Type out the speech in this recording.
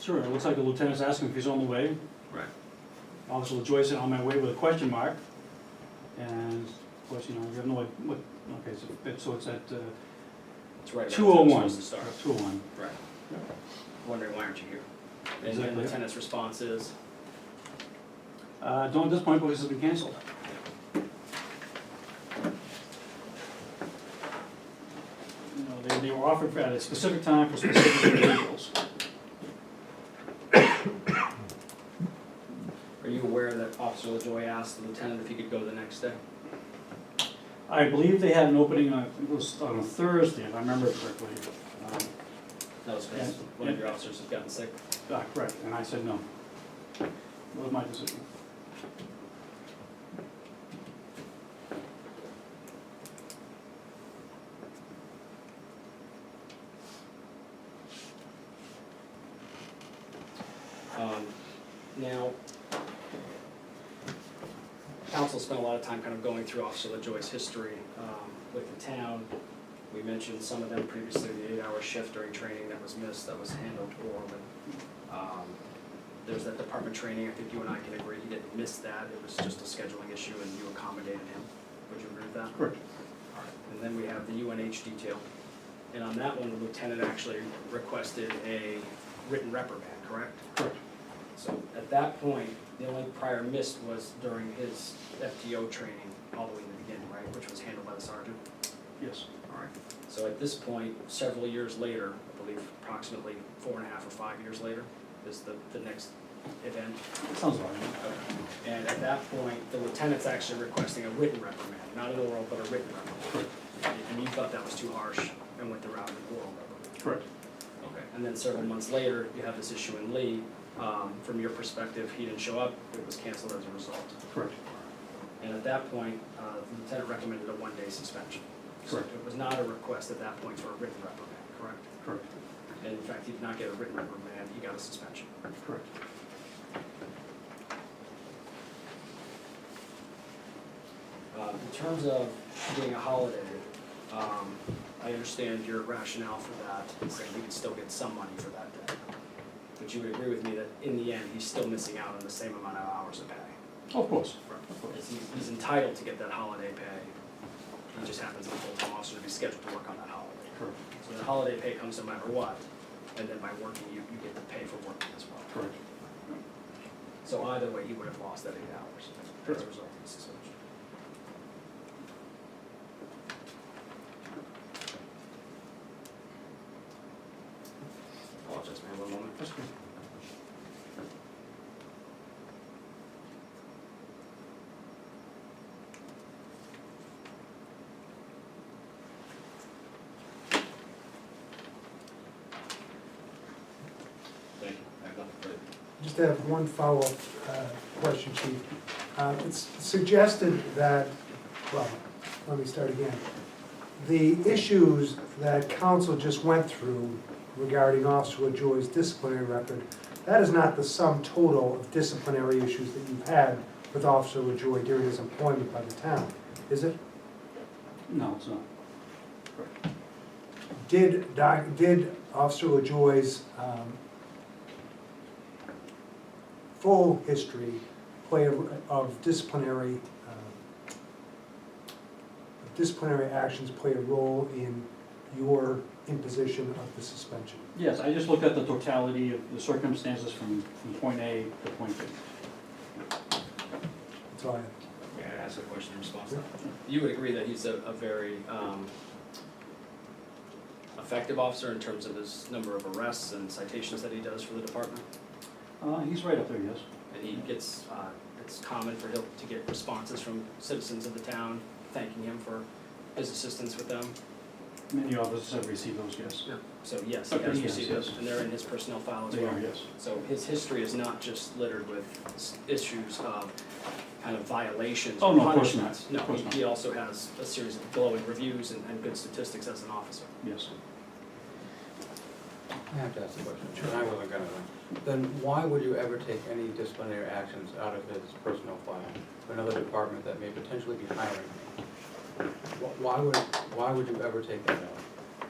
Sure, it looks like the lieutenant's asking if he's on the way. Right. Officer LaJoy said, "On my way," with a question mark. And, of course, you know, we have no, idea what, okay, so it's, so it's at uh, It's right around two oh one. where it's supposed to start. Two oh one. Right. Wondering why aren't you here? And the Exactly. lieutenant's response is, Uh, don't at this point, because it's been canceled. You know, they, they were offered at a specific time for specific individuals. are you aware that Officer LaJoy asked the lieutenant if he could go the next day? I believe they had an opening on, it was on a Thursday, if I remember correctly. Um, That was because Yeah. one of your officers had gotten sick. Ah, correct, and I said no. That was my decision. Um, Now, council spent a lot of time kind of going through Officer LaJoy's history um, with the town. We mentioned some of them previously, the eight-hour shift during training that was missed, that was handled poorly. Um, There's that department training, I think you and I can agree, he didn't miss that, it was just a scheduling issue and you accommodated him. Would you agree with that? Correct. And then we have the UNH detail. And on that one, the lieutenant actually requested a written reprimand, correct? Correct. So at that point, the only prior missed was during his FTO training all the way in the beginning, right, which was handled by the sergeant? Yes, All right. So at this point, several years later, I believe approximately four and a half or five years later, is the, the next event. sounds all right. And at that point, the lieutenant's actually requesting a written reprimand, not an oral, but a written reprimand. And you thought that was too harsh and went the route of an oral reprimand. Correct. Okay. And then several months later, you have this issue in Lee. Um, From your perspective, he didn't show up, it was canceled as a result. Correct. And at that point, uh, the lieutenant recommended a one-day suspension. So Correct. It was not a request at that point for a written reprimand, correct? Correct. And in fact, he did not get a written reprimand, he got a suspension. Correct. Uh, In terms of being a holiday, um, I understand your rationale for that, saying he could still get some money for that day. But you would agree with me that in the end, he's still missing out on the same amount of hours of pay. Of course. Because he- He's entitled to get that holiday pay. He just happens to be a full-time officer to be scheduled to work on that holiday. Correct. So the holiday pay comes no matter what, and then by working, you, you get the pay for working as well. Correct. So either way, you would have lost that eight hours as a result of the suspension. Apologize, man, one moment. That's good. Thank you. I have nothing further. Just have one follow-up uh, question, Chief. Uh, It's suggested that, well, let me start again. The issues that council just went through regarding Officer LaJoy's disciplinary record, that is not the sum total of disciplinary issues that you've had with Officer LaJoy during his employment by the town, is it? No, it's not. Did, Doc- did Officer LaJoy's um, full history play a- of disciplinary, um, of disciplinary actions play a role in your imposition of the suspension? Yes, I just looked at the totality of the circumstances from, from point A to point B. That's all I have. May I ask a question in response to that? You would agree that he's a, a very, um, effective officer in terms of his number of arrests and citations that he does for the department? Uh, he's right up there, yes. And he gets, uh, it's common for him to get responses from citizens of the town thanking him for his assistance with them. Many officers have received those, yes. So yes, he Okay, has yes, received those, yes. and they're in his personnel file as They well. are, yes. So his history is not just littered with s- issues of kind of violations Oh, or no, of course not. punishments. Of course he- not. he also has a series of glowing reviews and, and good statistics as an officer. Yes. I have to ask the question, and I wasn't gonna, then why would you ever take any disciplinary actions out of his personnel file for another department that may potentially be hiring him? Wh- Why would, why would you ever take that out?